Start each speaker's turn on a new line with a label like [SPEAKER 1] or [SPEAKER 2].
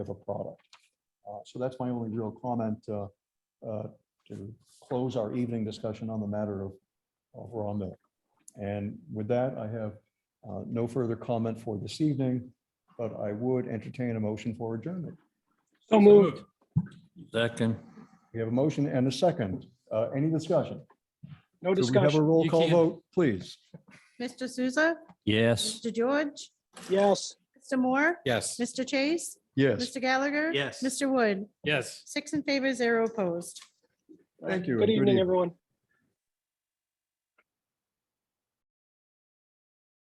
[SPEAKER 1] of a product. Uh, So that's my only real comment uh, uh, to close our evening discussion on the matter of of raw milk. And with that, I have uh, no further comment for this evening, but I would entertain a motion for adjournment.
[SPEAKER 2] So moved.
[SPEAKER 3] Second.
[SPEAKER 1] We have a motion and a second. Uh, Any discussion? Do we
[SPEAKER 2] No
[SPEAKER 1] have a
[SPEAKER 2] discussion.
[SPEAKER 1] roll
[SPEAKER 3] You
[SPEAKER 1] call
[SPEAKER 3] can't-
[SPEAKER 1] vote, please?
[SPEAKER 4] Mr. Souza,
[SPEAKER 3] Yes.
[SPEAKER 4] Mr. George,
[SPEAKER 2] Yes.
[SPEAKER 4] Mr. Moore,
[SPEAKER 3] Yes.
[SPEAKER 4] Mr. Chase,
[SPEAKER 1] Yes,
[SPEAKER 4] Mr. Gallagher.
[SPEAKER 3] Yes.
[SPEAKER 4] Mr. Wood,
[SPEAKER 3] Yes.
[SPEAKER 4] six in favor, zero opposed.
[SPEAKER 1] thank you.
[SPEAKER 2] Good
[SPEAKER 1] and
[SPEAKER 2] evening, everyone.